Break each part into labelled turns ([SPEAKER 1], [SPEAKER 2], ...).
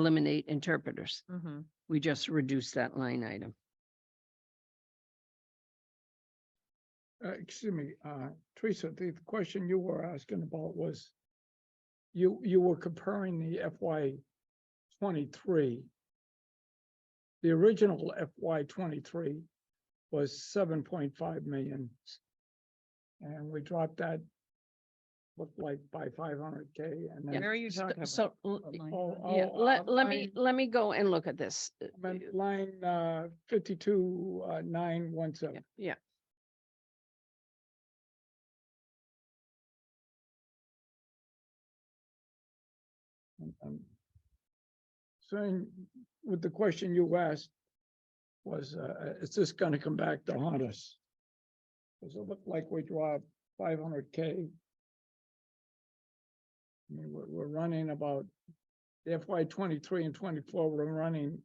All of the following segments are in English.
[SPEAKER 1] eliminate interpreters.
[SPEAKER 2] Mhm.
[SPEAKER 1] We just reduce that line item.
[SPEAKER 3] Uh, excuse me, uh, Teresa, the question you were asking about was you, you were comparing the FY twenty-three. The original FY twenty-three was seven point five million. And we dropped that looked like by five hundred K and
[SPEAKER 1] Yeah.
[SPEAKER 3] then.
[SPEAKER 2] Where are you talking about?
[SPEAKER 1] So, l-
[SPEAKER 2] What line?
[SPEAKER 3] Oh,
[SPEAKER 1] yeah,
[SPEAKER 3] oh, uh,
[SPEAKER 1] let, let me,
[SPEAKER 3] line-
[SPEAKER 1] let me go and look at this. Uh,
[SPEAKER 3] I meant Line, uh, fifty-two, uh, nine, one,
[SPEAKER 1] yeah,
[SPEAKER 3] seven.
[SPEAKER 1] Yeah.
[SPEAKER 3] I'm- I'm Saying with the question you asked was, uh, is this gonna come back to haunt us? Does it look like we draw five hundred K? I mean, we're, we're running about FY twenty-three and twenty-four, we're running,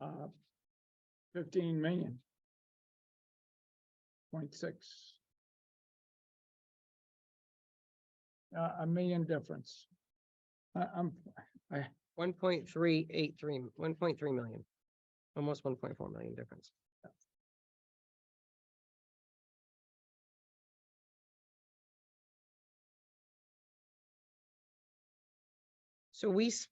[SPEAKER 3] uh, fifteen million. Point six. Uh, a million difference. I, I'm,
[SPEAKER 4] One point three eight three, one point three million, almost one point four million difference. So we, s-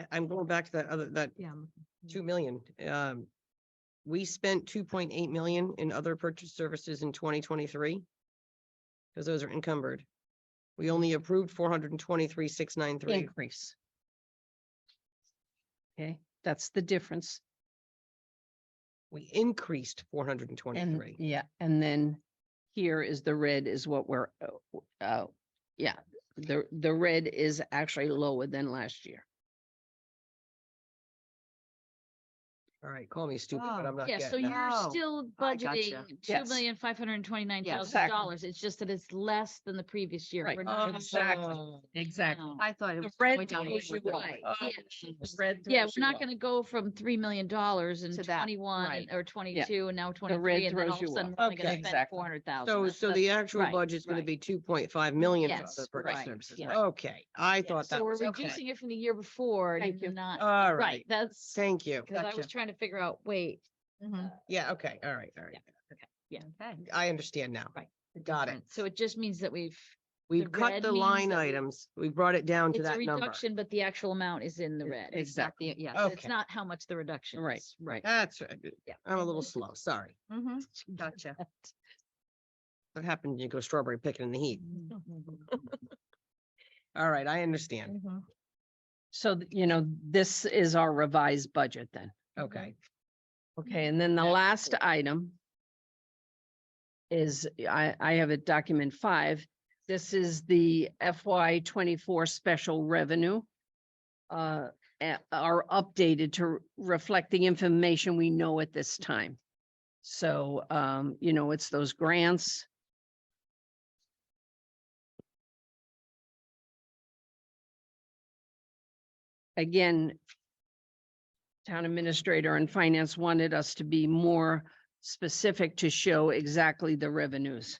[SPEAKER 4] I- I'm going back to that other, that
[SPEAKER 2] Yeah, I'm looking.
[SPEAKER 4] two million, um. We spent two point eight million in other purchase services in twenty twenty-three. Cause those are encumbered. We only approved four hundred and twenty-three, six nine three.
[SPEAKER 1] Increase. Okay, that's the difference.
[SPEAKER 4] We increased four hundred and
[SPEAKER 1] And,
[SPEAKER 4] twenty-three.
[SPEAKER 1] yeah, and then here is the red is what we're, uh, w- uh, yeah, the, the red is actually lower than last year.
[SPEAKER 4] All right, call me stupid, but
[SPEAKER 2] Oh.
[SPEAKER 4] I'm not
[SPEAKER 5] Yeah, so
[SPEAKER 4] getting it.
[SPEAKER 5] you're
[SPEAKER 2] Oh,
[SPEAKER 5] still
[SPEAKER 2] I
[SPEAKER 5] budgeting
[SPEAKER 2] gotcha.
[SPEAKER 5] two million five hundred and twenty-nine
[SPEAKER 2] Yeah,
[SPEAKER 5] thousand dollars.
[SPEAKER 1] exactly.
[SPEAKER 5] It's just that it's less than the previous year.
[SPEAKER 1] Right,
[SPEAKER 5] We're not-
[SPEAKER 1] exactly.
[SPEAKER 4] Oh,
[SPEAKER 1] Exactly.
[SPEAKER 5] no.
[SPEAKER 2] I thought it was.
[SPEAKER 1] red
[SPEAKER 2] going down
[SPEAKER 1] throws you
[SPEAKER 2] anyway.
[SPEAKER 1] away.
[SPEAKER 2] Oh,
[SPEAKER 5] Yeah.
[SPEAKER 2] geez.
[SPEAKER 5] Yeah, we're not gonna go from three million dollars in
[SPEAKER 2] To that,
[SPEAKER 5] twenty-one
[SPEAKER 2] right.
[SPEAKER 5] or twenty-two and now
[SPEAKER 1] red
[SPEAKER 5] twenty-three. And then
[SPEAKER 1] throws
[SPEAKER 5] all of a
[SPEAKER 1] you
[SPEAKER 5] sudden,
[SPEAKER 1] off.
[SPEAKER 5] we're only
[SPEAKER 4] Okay.
[SPEAKER 5] gonna spend
[SPEAKER 1] Exactly.
[SPEAKER 5] four hundred thousand.
[SPEAKER 4] So, so the actual
[SPEAKER 5] right,
[SPEAKER 4] budget's gonna
[SPEAKER 5] right.
[SPEAKER 4] be two point five million for
[SPEAKER 5] Yes,
[SPEAKER 4] other purchase
[SPEAKER 5] right,
[SPEAKER 4] services.
[SPEAKER 5] yeah.
[SPEAKER 4] Okay, I thought that
[SPEAKER 5] So we're
[SPEAKER 4] was, okay.
[SPEAKER 5] reducing it from the year before
[SPEAKER 1] Thank you.
[SPEAKER 5] and not,
[SPEAKER 4] All
[SPEAKER 5] right,
[SPEAKER 4] right,
[SPEAKER 5] that's,
[SPEAKER 4] thank you.
[SPEAKER 5] cause I
[SPEAKER 2] Gotcha.
[SPEAKER 5] was trying to figure out, wait,
[SPEAKER 2] Mhm.
[SPEAKER 4] Yeah, okay, all right, all right.
[SPEAKER 5] yeah.
[SPEAKER 2] Okay.
[SPEAKER 4] I understand now.
[SPEAKER 5] Right.
[SPEAKER 4] Got it.
[SPEAKER 5] So it just means that we've,
[SPEAKER 4] We've cut
[SPEAKER 5] red
[SPEAKER 4] the
[SPEAKER 5] means
[SPEAKER 4] line
[SPEAKER 5] that we-
[SPEAKER 4] items. We brought it down to
[SPEAKER 5] it's a
[SPEAKER 4] that number.
[SPEAKER 5] reduction, but the actual amount is in the
[SPEAKER 1] It-
[SPEAKER 5] red.
[SPEAKER 2] It's not the- Yeah.
[SPEAKER 5] It's
[SPEAKER 4] Okay.
[SPEAKER 5] not how much the reduction
[SPEAKER 1] Right,
[SPEAKER 5] is.
[SPEAKER 1] right.
[SPEAKER 4] That's, right.
[SPEAKER 5] Yeah.
[SPEAKER 4] I'm a little slow, sorry.
[SPEAKER 2] Mhm. Gotcha.
[SPEAKER 4] That happened, when you go strawberry picking in the heat. All right, I understand.
[SPEAKER 2] Mhm.
[SPEAKER 1] So, th- you know, this is our revised budget then.
[SPEAKER 5] Mm-hmm.
[SPEAKER 4] Okay.
[SPEAKER 1] Okay, and then the
[SPEAKER 4] That's
[SPEAKER 1] last item is, I, I have it document five. This is the FY twenty-four special revenue. Uh, a- are updated to reflect the information we know at this time. So, um, you know, it's those grants. Again, town administrator and finance wanted us to be more specific to show exactly the revenues.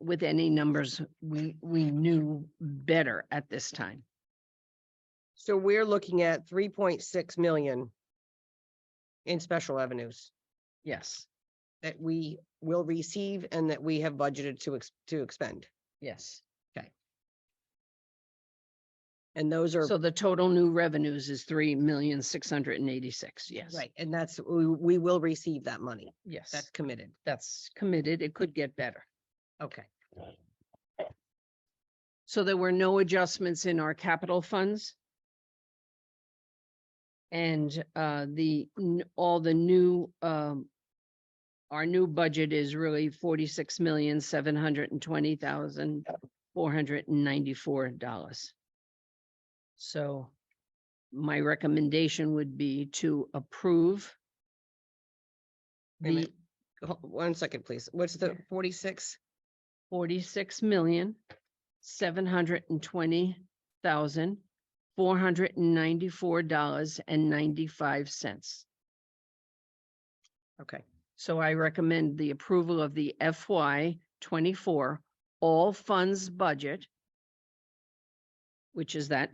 [SPEAKER 1] With any numbers we, we knew better at this time.
[SPEAKER 4] So we're looking at three point six million in special revenues
[SPEAKER 1] Yes,
[SPEAKER 4] that we will receive and that we have budgeted to ex- to expend.
[SPEAKER 1] yes.
[SPEAKER 4] And those are,
[SPEAKER 1] So the total new revenues is three million, six hundred and eighty-six. Yes,
[SPEAKER 4] right, and that's, we, we will receive that money. That's
[SPEAKER 1] yes,
[SPEAKER 4] committed.
[SPEAKER 1] that's committed. It could get better.
[SPEAKER 4] Okay.
[SPEAKER 1] So there were no adjustments in our capital funds. And uh, the, n- all the new, um, our new budget is really forty-six million, seven hundred and twenty thousand, four hundred and ninety-four dollars. So my recommendation would be to approve.
[SPEAKER 4] Wait a
[SPEAKER 1] The
[SPEAKER 4] minute. Ho- One second, please. What's the forty-six?
[SPEAKER 1] forty-six million, seven hundred and twenty thousand, four hundred and ninety-four dollars and ninety-five cents.
[SPEAKER 4] Okay,
[SPEAKER 1] So I recommend the approval of the FY twenty-four all funds budget which is that